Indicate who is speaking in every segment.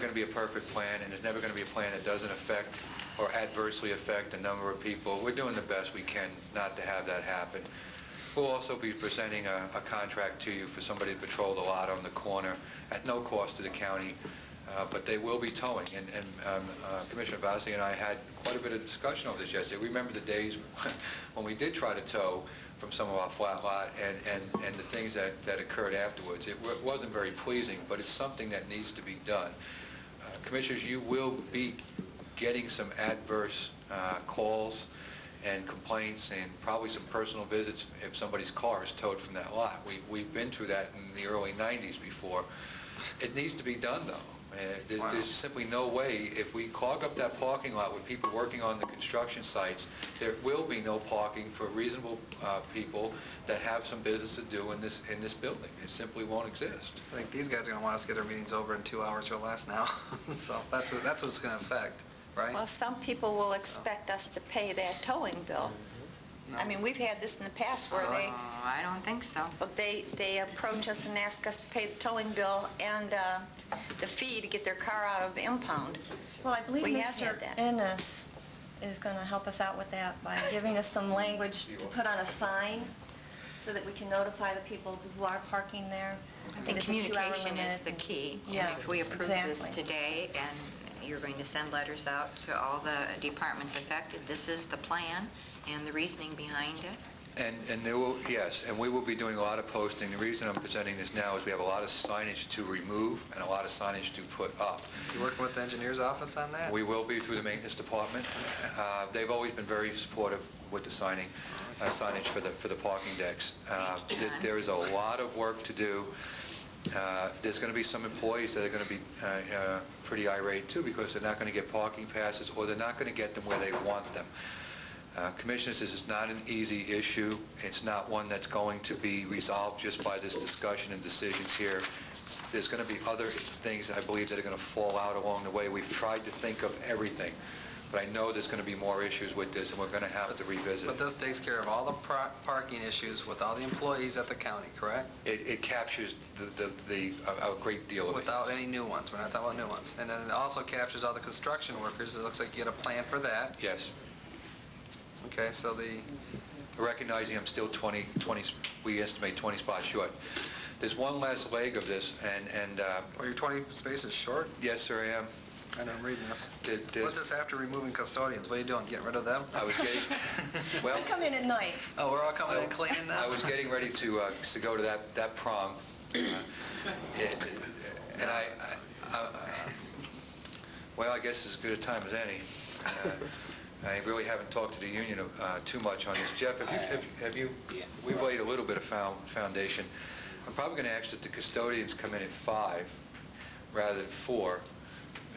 Speaker 1: going to be a perfect plan, and there's never going to be a plan that doesn't affect or adversely affect the number of people. We're doing the best we can not to have that happen. We'll also be presenting a, a contract to you for somebody to patrol the lot on the corner at no cost to the county, uh, but they will be towing. And, and um, uh, Commissioner Vassie and I had quite a bit of discussion over this yesterday. We remember the days when we did try to tow from some of our flat lot and, and, and the things that, that occurred afterwards. It wa- wasn't very pleasing, but it's something that needs to be done. Uh, Commissioners, you will be getting some adverse uh, calls and complaints and probably some personal visits if somebody's car is towed from that lot. We- We've been through that in the early 90s before. It needs to be done, though. Uh, there's-
Speaker 2: Wow.
Speaker 1: There's simply no way, if we clog up that parking lot with people working on the construction sites, there will be no parking for reasonable uh, people that have some business to do in this, in this building. It simply won't exist.
Speaker 2: I think these guys are going to want us to get their meetings over in two hours or less now. So that's, what- that's what it's going to affect,
Speaker 3: Well,
Speaker 2: right?
Speaker 3: some people will expect us to pay their towing bill. I mean, we've had this in the past where they,
Speaker 4: Oh, I don't think so.
Speaker 3: but they, they approach us and ask us to pay the towing bill and uh, the fee to get their car out of impound.
Speaker 5: Well, I believe
Speaker 3: We have
Speaker 5: Mr.
Speaker 3: had that.
Speaker 5: Ennis is going to help us out with that by giving us some language to put on a sign so that we can notify the people who are parking there.
Speaker 4: I think
Speaker 5: It's a two-hour
Speaker 4: communication is
Speaker 5: limit.
Speaker 4: the key.
Speaker 5: Yeah,
Speaker 4: And if we approve this
Speaker 5: exactly.
Speaker 4: today, and you're going to send letters out to all the departments affected, this is the plan and the reasoning behind it.
Speaker 1: And, and there will, yes, and we will be doing a lot of posting. The reason I'm presenting this now is we have a lot of signage to remove and a lot of signage to put up.
Speaker 2: You working with the engineer's office on that?
Speaker 1: We will be through the maintenance department. Uh, They've always been very supportive with the signing, uh, signage for the, for the parking decks. Uh,
Speaker 4: Thank you,
Speaker 1: th-
Speaker 4: John.
Speaker 1: There is a lot of work to do. Uh, There's going to be some employees that are going to be uh, uh, pretty irate too, because they're not going to get parking passes, or they're not going to get them where they want them. Uh, Commissioners, this is not an easy issue. It's not one that's going to be resolved just by this discussion and decisions here. S- There's going to be other things, I believe, that are going to fall out along the way. We've tried to think of everything, but I know there's going to be more issues with this, and we're going to have to revisit.
Speaker 2: But
Speaker 1: it.
Speaker 2: this takes care of all the pro- parking issues with all the employees at the county, correct?
Speaker 1: It it captures the, the- the, a a great deal of it.
Speaker 2: Without any new ones, we're not talking about new ones. And then it also captures all the construction workers, it looks like you get a plan for that.
Speaker 1: Yes.
Speaker 2: Okay, so the,
Speaker 1: recognizing I'm still 20, 20, we estimate 20 spots short. There's one last leg of this, and, and, uh,
Speaker 2: well, your 20 spaces short,
Speaker 1: yes, sir, I am.
Speaker 2: and I'm reading this.
Speaker 1: There- there's-
Speaker 2: What's this after removing custodians? What are you doing, getting rid of them?
Speaker 1: I was getting, well,
Speaker 5: I come in at night.
Speaker 2: Oh, we're all coming in cleaning now?
Speaker 1: I was getting ready to, uh, to go to that, that prom. uh, And I, I- I- well, I guess as good a time as any. Uh, I really haven't talked to the union uh, too much on this. Jeff, have you, have- have you, we've laid a little bit of found- foundation. I'm probably going to ask that the custodians come in at five rather than four.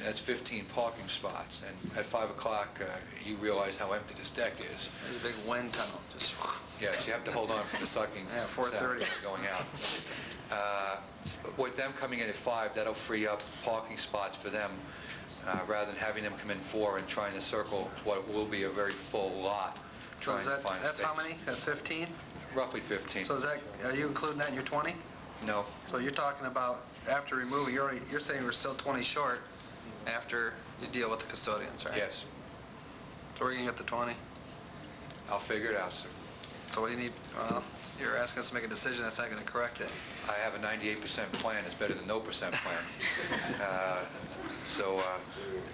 Speaker 1: That's 15 parking spots, and at 5 o'clock, uh, you realize how empty this deck is.
Speaker 2: There's a big wind tunnel, just,
Speaker 1: Yes, you have to hold on for the sucking.
Speaker 2: Yeah, 4:30.
Speaker 1: sound Going out. Uh, With them coming in at five, that'll free up parking spots for them, uh, rather than having them come in four and trying to circle what will be a very full lot,
Speaker 2: so
Speaker 1: trying
Speaker 2: is
Speaker 1: to
Speaker 2: that,
Speaker 1: find
Speaker 2: that's how
Speaker 1: space.
Speaker 2: many? That's 15?
Speaker 1: Roughly 15.
Speaker 2: So is that, are you including that in your 20?
Speaker 1: No,
Speaker 2: So you're talking about after removing, you're, already- you're saying we're still 20 short after you deal with the custodians, right?
Speaker 1: yes,
Speaker 2: So we're gonna get the 20.
Speaker 1: I'll figure it out, sir.
Speaker 2: So what do you need, uh, you're asking us to make a decision that's not gonna correct it.
Speaker 1: I have a 98% plan, it's better than no percent plan. Uh, So uh,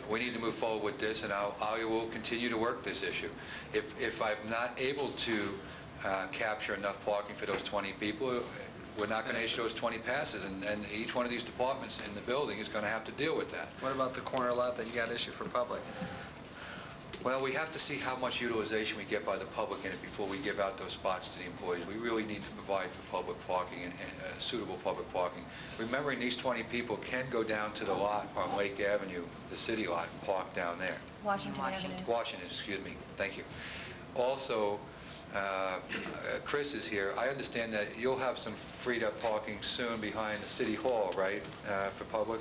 Speaker 1: we need to move forward with this, and I'll- I will continue to work this issue. If if I'm not able to uh, capture enough parking for those 20 people, we're not going to issue those 20 passes, and and each one of these departments in the building is going to have to deal with that.
Speaker 2: What about the corner lot that you got issued for public?
Speaker 1: Well, we have to see how much utilization we get by the public in it before we give out those spots to the employees. We really need to provide for public parking and and, uh, suitable public parking. Remembering these 20 people can go down to the lot on Lake Avenue, the city lot, and park down there.
Speaker 5: Washington
Speaker 4: Washington.
Speaker 5: Avenue.
Speaker 1: Washington, excuse me, thank you. Also, uh, uh, Chris is here. I understand that you'll have some freed-up parking soon behind the city hall, right, uh, for public?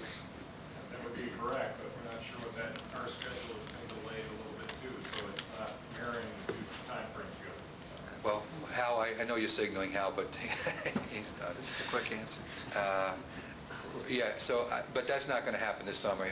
Speaker 6: That would be correct, but we're not sure what that, our schedule is being delayed a little bit too, so it's not mirroring the two timeframes good.
Speaker 1: Well, Hal, I I know you're signaling Hal, but he's uh, not.
Speaker 2: It's just a quick answer.
Speaker 1: Uh, Yeah, so, I- but that's uh, not going to happen this summer.